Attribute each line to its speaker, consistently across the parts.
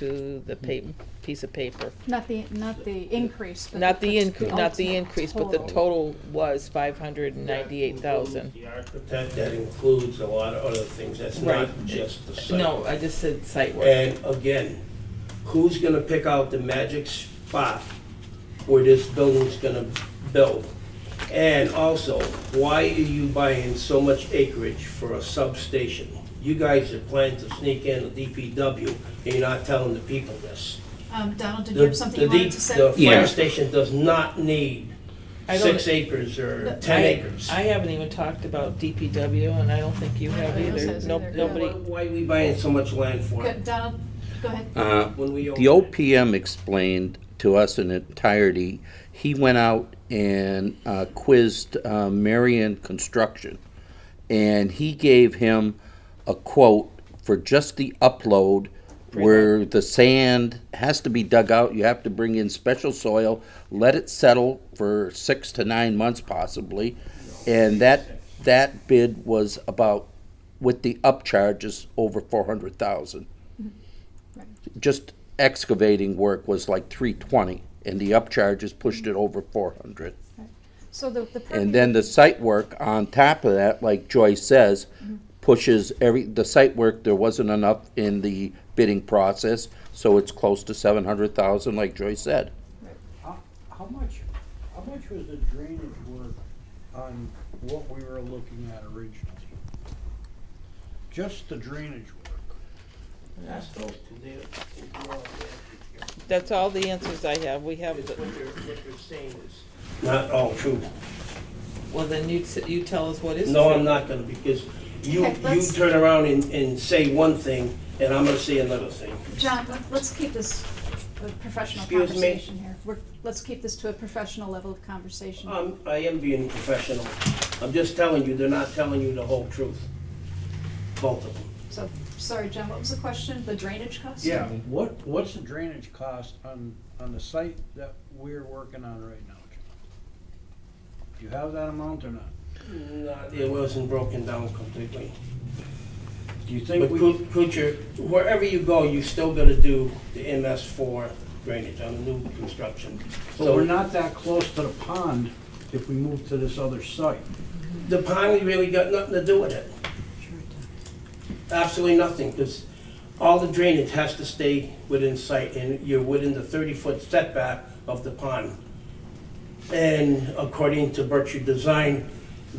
Speaker 1: to the pa- piece of paper.
Speaker 2: Not the, not the increase. but
Speaker 1: Not the inc-
Speaker 2: the
Speaker 1: not the
Speaker 2: ultimate
Speaker 1: increase, but the total was five hundred and ninety-eight thousand.
Speaker 3: The architect, that includes a lot of other things, that's not
Speaker 1: Right.
Speaker 3: just the site.
Speaker 1: No, I just said site work.
Speaker 3: And again, who's gonna pick out the magic spot where this building's gonna build? And also, why are you buying so much acreage for a substation? You guys are planning to sneak in a DPW, and you're not telling the people this.
Speaker 4: Um, Donald, did you
Speaker 3: The
Speaker 4: have something you
Speaker 3: the D-
Speaker 4: wanted to say?
Speaker 3: The
Speaker 5: Yeah.
Speaker 3: fire station does not need
Speaker 1: I don't-
Speaker 3: six acres or ten
Speaker 1: I-
Speaker 3: acres.
Speaker 1: I haven't even talked about DPW and I don't think you have
Speaker 2: Nobody else
Speaker 1: either.
Speaker 2: has
Speaker 1: Nope,
Speaker 2: either.
Speaker 3: Why
Speaker 1: nobody.
Speaker 3: why are we buying so much land for
Speaker 4: Go-
Speaker 3: it?
Speaker 4: Donald, go ahead.
Speaker 5: Uh,
Speaker 3: when we
Speaker 5: The
Speaker 3: open it?
Speaker 5: OPM explained to us in entirety, he went out and uh, quizzed uh, Marion Construction, and he gave him a quote for just the upload where the sand has to be dug out, you have to bring in special soil, let it settle for six to nine months possibly, and that, that bid was about, with the upcharges, over four hundred thousand just excavating work was like three twenty, and the upcharges pushed it over four hundred.
Speaker 2: So the, the.
Speaker 5: And then the site work on top of that, like Joyce says, pushes every, the site work, there wasn't enough in the bidding process, so it's close to seven hundred thousand, like Joyce said.
Speaker 6: How, how much, how much was the drainage work on what we were looking at originally? Just the drainage work.
Speaker 3: That's those two there.
Speaker 1: That's all the answers I have. We have, the-
Speaker 3: What you're, what you're saying is not all true.
Speaker 1: well, then you, t- you tell us what is.
Speaker 3: No,
Speaker 1: true.
Speaker 3: I'm not gonna, because you,
Speaker 4: Okay,
Speaker 3: you
Speaker 4: let's-
Speaker 3: turn around and, and say one thing, and I'm gonna say another thing.
Speaker 4: John, let- let's keep this a professional
Speaker 3: Excuse me?
Speaker 4: conversation here. We're, let's keep this to a professional level of conversation.
Speaker 3: I'm, I am being professional. I'm just telling you, they're not telling you the whole truth. Both of them.
Speaker 4: So, sorry, John, what was the question? The drainage cost?
Speaker 6: What, what's the drainage cost on, on the site that we're working on right now? John? Do you have that amount or not?
Speaker 3: Mm, Not- It wasn't broken down completely.
Speaker 6: Do you think
Speaker 3: But
Speaker 6: we,
Speaker 3: Coo- Kuchar, wherever you go, you still gotta do the MS four drainage on the new construction.
Speaker 6: so we're not that close to the pond if we move to this other site?
Speaker 3: The pond really got nothing to do with it. Absolutely nothing, because all the drainage has to stay within sight, and you're within the thirty-foot setback of the pond. And according to Berkshire Design,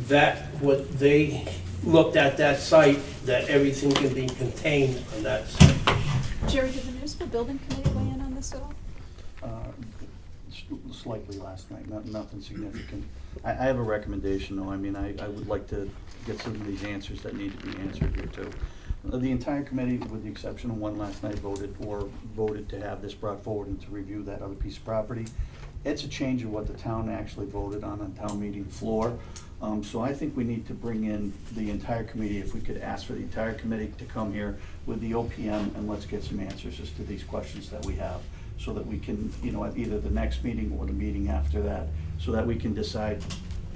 Speaker 3: that, what they looked at that site, that everything can be contained on that site.
Speaker 4: Jerry, did the municipal building committee weigh in on this at all?
Speaker 7: Uh, s- Slightly last night, not, nothing significant. I, I have a recommendation, though, I mean, I, I would like to get some of these answers that need to be answered here, too. Uh, The entire committee, with the exception of one last night, voted, or voted to have this brought forward and to review that other piece of property. It's a change of what the town actually voted on on town meeting floor. Um, so I think we need to bring in the entire committee, if we could ask for the entire committee to come here with the OPM, and let's get some answers as to these questions that we have so that we can, you know, at either the next meeting or the meeting after that, so that we can decide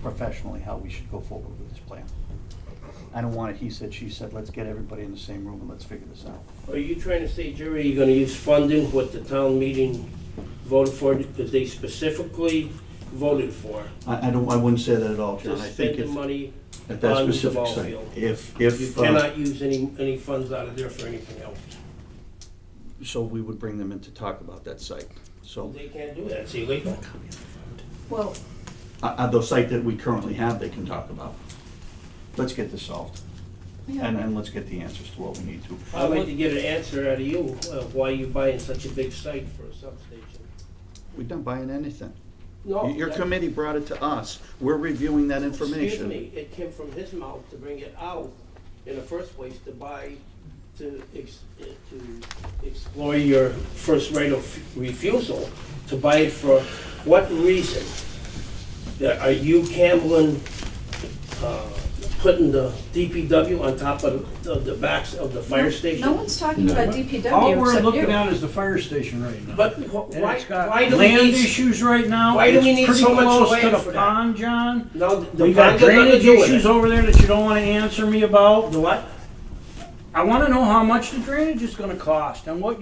Speaker 7: professionally how we should go forward with this plan. I don't want it, he said, she said, let's get everybody in the same room and let's figure this out.
Speaker 3: Are you trying to say, Jerry, you're gonna use funding what the town meeting voted for, because they specifically voted for?
Speaker 7: I, I don't, I wouldn't say that at all,
Speaker 3: To
Speaker 7: John, I
Speaker 3: spend
Speaker 7: think
Speaker 3: the
Speaker 7: if,
Speaker 3: money
Speaker 7: at that
Speaker 3: on the
Speaker 7: specific
Speaker 3: ball
Speaker 7: site,
Speaker 3: field.
Speaker 7: if,
Speaker 3: You
Speaker 7: if, uh,
Speaker 3: cannot use any, any funds out of there for anything else.
Speaker 7: so we would bring them in to talk about that site. So,
Speaker 3: They can't do that, it's illegal.
Speaker 4: Well,
Speaker 7: uh, uh, the site that we currently have, they can talk about. Let's get this solved,
Speaker 4: yeah,
Speaker 7: and, and let's get the answers to what we need to.
Speaker 3: I'd like to get an answer out of you, uh, why you buying such a big site for a substation.
Speaker 7: We're not buying anything.
Speaker 3: No,
Speaker 7: Your
Speaker 3: that-
Speaker 7: committee brought it to us. We're reviewing that
Speaker 3: Oh, Excuse
Speaker 7: information.
Speaker 3: me, it came from his mouth to bring it out in the first place to buy, to ex, eh, to explore your first right of refusal, to buy it for what reason? That- Are you Camblin, uh, putting the DPW on top of, the- of the backs of the fire station?
Speaker 4: no one's talking about DPW
Speaker 6: All we're
Speaker 4: except you.
Speaker 6: looking at is the fire station right now.
Speaker 3: But wh-
Speaker 6: And
Speaker 3: why,
Speaker 6: it's got
Speaker 3: why do we
Speaker 6: land
Speaker 3: need,
Speaker 6: issues right now.
Speaker 3: why do we
Speaker 6: It's
Speaker 3: need
Speaker 6: pretty
Speaker 3: so much
Speaker 6: close
Speaker 3: land
Speaker 6: to
Speaker 3: for
Speaker 6: the
Speaker 3: that?
Speaker 6: pond, John.
Speaker 3: no, the
Speaker 6: We got
Speaker 3: bond got nothing to
Speaker 6: drainage
Speaker 3: do with
Speaker 6: issues
Speaker 3: it.
Speaker 6: over there that you don't want to answer me about.
Speaker 3: The what?
Speaker 6: I want to know how much the drainage is going to cost and what